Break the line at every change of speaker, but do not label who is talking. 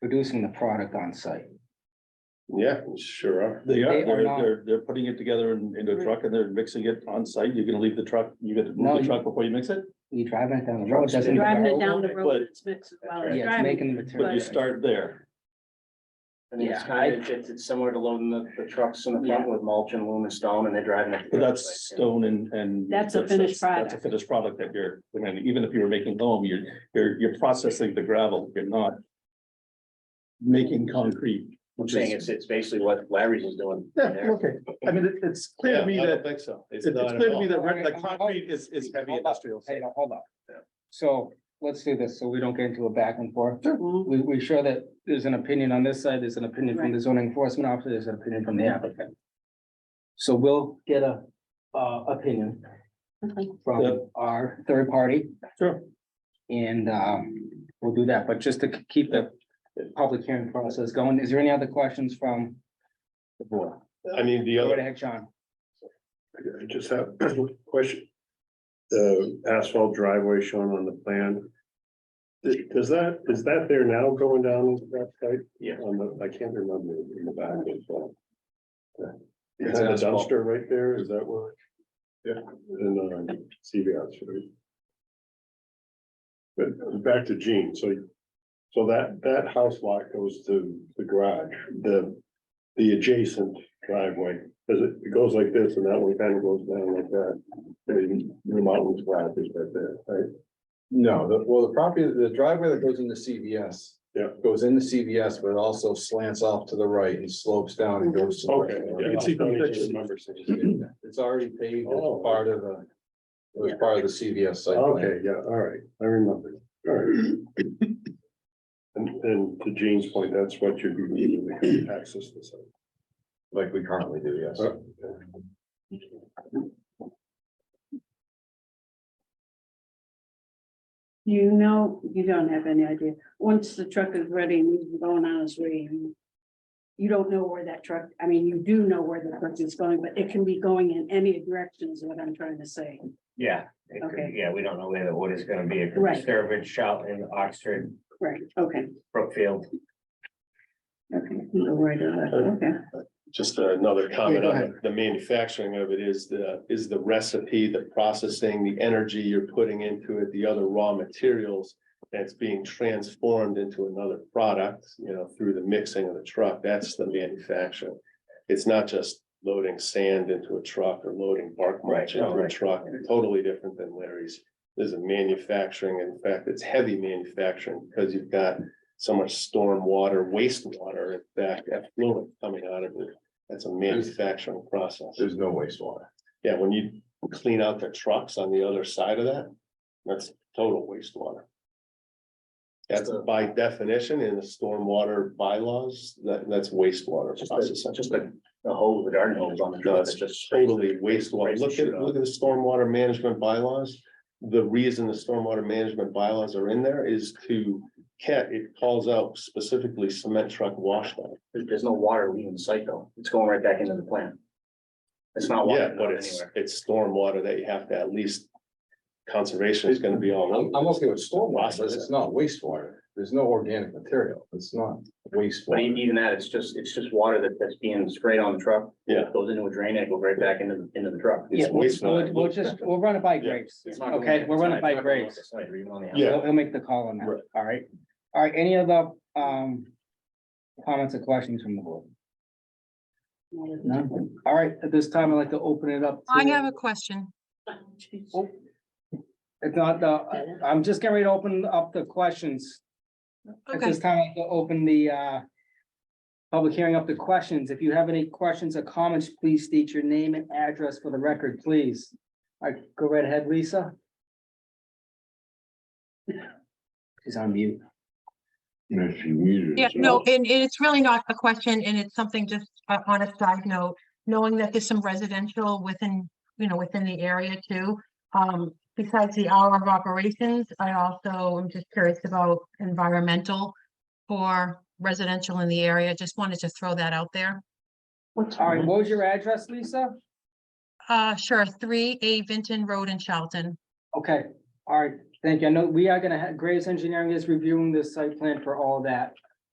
producing the product on site.
Yeah, sure are.
They
They
are,
are
they're,
not-
they're, they're putting it together in, in a truck and they're mixing it on site. You're gonna leave the truck, you gotta
No,
move the
you-
truck before you mix it?
You driving it down the road, doesn't.
Driving it
matter.
down the road,
But-
it's mixed while it's
Yeah, it's
driving.
making the
But
material.
you start there.
I think it's
Yeah,
kind of, it's, it's similar to loading the, the trucks in the front with mulch and loom and stone and they're driving it.
But that's stone and, and.
That's a finished
That's a finished product that you're, I mean, even if you were making loam, you're, you're, you're processing the gravel, you're not. Making concrete.
I'm saying it's, it's basically what Larry's is doing.
Yeah,
there.
okay. I mean, it- it's clear to me
Yeah, I don't
that,
think so.
it's it's clear to me that re-
Alright,
that
alright.
concrete is, is heavy
Hold up.
industrial.
Hey, now, hold up.
Yeah.
So let's do this, so we don't get into a back and forth.
Mhm.
We, we sure that there's an opinion on this side, there's an opinion from the zoning enforcement officer, there's an opinion from the applicant. So we'll get a, uh, opinion
Okay.
Yep.
from our third party.
Sure.
And, um, we'll do that, but just to k- keep the public hearing process going, is there any other questions from the board?
I mean, the
Go
other,
right ahead, John.
I just have a question. The asphalt driveway shown on the plan. Th- Does that, is that there now going down that site?
Yeah.
On the, I can't remember in the back. as well. Is
It's
that a
asphalt.
dumpster right there? Is that what? Yeah, and uh, CVS. right? But back to Gene, so. So that, that house lot goes to the garage, the, the adjacent driveway, does it, it goes like this and that one kind of goes down like that. I mean, The mountain's flat is right there, right?
No, the, well, the property, the driveway that goes into CVS.
Yeah.
Goes into CVS, but it also slants off to the right and slopes down and goes. to the right.
Okay, I can see from the picture.
It's already paved,
Oh.
it's part of the, it was part of the CVS site. plan.
Okay, yeah, all right, I remember, all right. And, and to Gene's point, that's what you're needing to access the site.
Like we currently do, yes.
Uh,
You know, you don't have any idea. Once the truck is ready and he's going on his way. you- You don't know where that truck, I mean, you do know where the truck is going, but it can be going in any direction is what I'm trying to say.
Yeah, it could-
Okay.
yeah, we don't know where the wood is gonna be. It could
Right.
be Sturbridge, Charlton, Oxford,
Right, okay,
Brookfield.
okay. You're right on that, Okay.
Just another comment
go
on
ahead.
the- the manufacturing of it is the, is the recipe, the processing, the energy you're putting into it, the other raw materials. That's being transformed into another product, you know, through the mixing of the truck. That's the manufacturing. It's not just loading sand into a truck or loading bark mulch
Right,
into a
right.
truck. Totally different than Larry's. There's a manufacturing, in fact, it's heavy manufacturing because you've got so much storm water, wastewater, in fact, effluent coming out of it. That's a manufacturing process.
There's no wastewater.
Yeah, when you clean out the trucks on the other side of that, that's total wastewater. That's by definition in the stormwater bylaws, that, that's wastewater
Just
process.
a, just a, a hole, the garden hose on the
No,
truck.
it's
It's just
totally wastewater.
Raise the
Look
chute
at,
up.
look at the stormwater management bylaws. The reason the stormwater management bylaws are in there is to cat, it calls out specifically cement truck washdown.
There's, there's no water leaving the site though. It's going right back into the plant. It's not
Yeah,
water
but
going
it's,
anywhere.
it's stormwater that you have to at least conservation is gonna be all
I'm,
over.
I'm okay with stormwater, but it's not wastewater. There's no organic material. It's not
But e-
wastewater.
even that, it's just, it's just water that, that's being sprayed on the truck.
Yeah.
Goes into a drain and it goes right back into, the into the truck.
Yeah,
It's
we'll,
wastewater.
we'll- we'll just, we'll run it by
Yeah.
Graves.
It's not going
Okay,
in-
we'll
it's
run
not-
it by
it's not going
Graves.
outside, It's even on the
Yeah.
He'll, he'll make the call on that,
Right.
all right? All right, any other, um, comments or questions from the board? None? All right, at this time, I'd like to open it up.
I
to-
have a question.
Jeez.
Oh, It's not, uh, I'm just getting ready to open up the questions. At
Okay,
this time, I'd like to open the, uh, public hearing up to questions. If you have any questions or comments, please state your name and address for the record, please. All right, go right ahead, Lisa. She's on mute.
yeah, no, and and it's really not a question and it's something just uh, on a side note, knowing that there's some residential within, you know, within the area too. Um, besides the hour of operations, I also am just curious about environmental for residential in the area. Just wanted to throw that out there.
All right, what was your address, Lisa?
Uh, sure, three A Vinton Road in Charlton.
Okay, all right, thank you. I know we are gonna have, Graves Engineering is reviewing this site plan for all that.